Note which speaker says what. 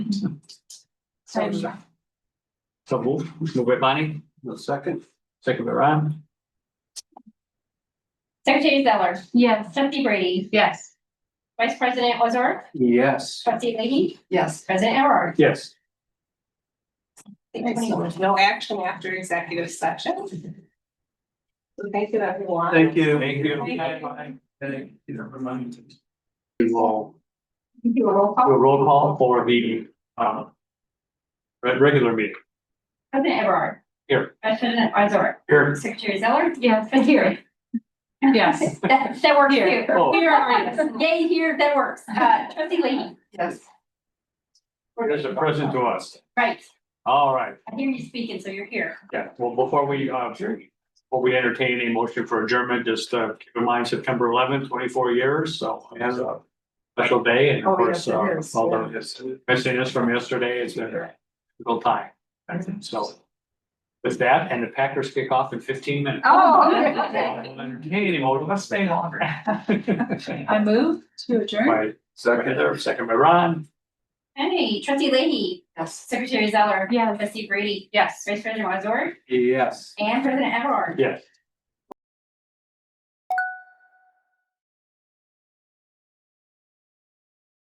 Speaker 1: So,
Speaker 2: So move, move by Bonnie,
Speaker 3: The second,
Speaker 2: second by Ron,
Speaker 1: Secretary Zeller,
Speaker 4: Yes.
Speaker 1: trustee Brady,
Speaker 4: Yes.
Speaker 1: vice president Ozark,
Speaker 3: yes.
Speaker 1: trustee Leahy,
Speaker 4: Yes.
Speaker 1: president Everard.
Speaker 2: yes.
Speaker 4: Excellent. No action after executive session. So Thank you, everyone.
Speaker 3: Thank you.
Speaker 2: Thank you.
Speaker 3: Thank you for reminding me.
Speaker 2: We will
Speaker 4: You do a roll
Speaker 2: do
Speaker 4: call.
Speaker 2: a roll call for the, um, re- regular meeting.
Speaker 1: President Everard.
Speaker 2: Here.
Speaker 1: Vice president Ozark,
Speaker 2: Here,
Speaker 1: secretary Zeller,
Speaker 4: Yes.
Speaker 1: trustee Brady.
Speaker 4: Yes.
Speaker 1: That, that works
Speaker 4: Here.
Speaker 1: too.
Speaker 2: oh,
Speaker 4: Here are
Speaker 1: Yay, here, that works. Uh, trustee Leahy,
Speaker 4: Yes.
Speaker 2: there's a present to us.
Speaker 1: right,
Speaker 2: All right,
Speaker 1: I hear you speaking, so you're here.
Speaker 2: yeah, well, before we, uh, before we entertain a motion for adjournment, just, uh, keep in mind September eleventh, twenty-four years, so it has a special day and
Speaker 4: Oh,
Speaker 2: of course,
Speaker 4: yes, it
Speaker 2: uh,
Speaker 4: is,
Speaker 2: all
Speaker 4: yeah.
Speaker 2: the missing us from yesterday, it's a difficult time.
Speaker 4: Mm-hmm.
Speaker 2: So with that, and the Packers kick off in fifteen minutes.
Speaker 4: Oh, okay.
Speaker 2: Well, Entertaining, well, let's stay longer. By
Speaker 4: I move to adjourn.
Speaker 2: Heather, second by Ron,
Speaker 1: Hey, trustee Leahy,
Speaker 4: Yes.
Speaker 1: secretary Zeller,
Speaker 4: Yes.
Speaker 1: trustee Brady,
Speaker 4: Yes.
Speaker 1: vice president Ozark,
Speaker 3: Yes.
Speaker 1: and president Everard.
Speaker 2: yes.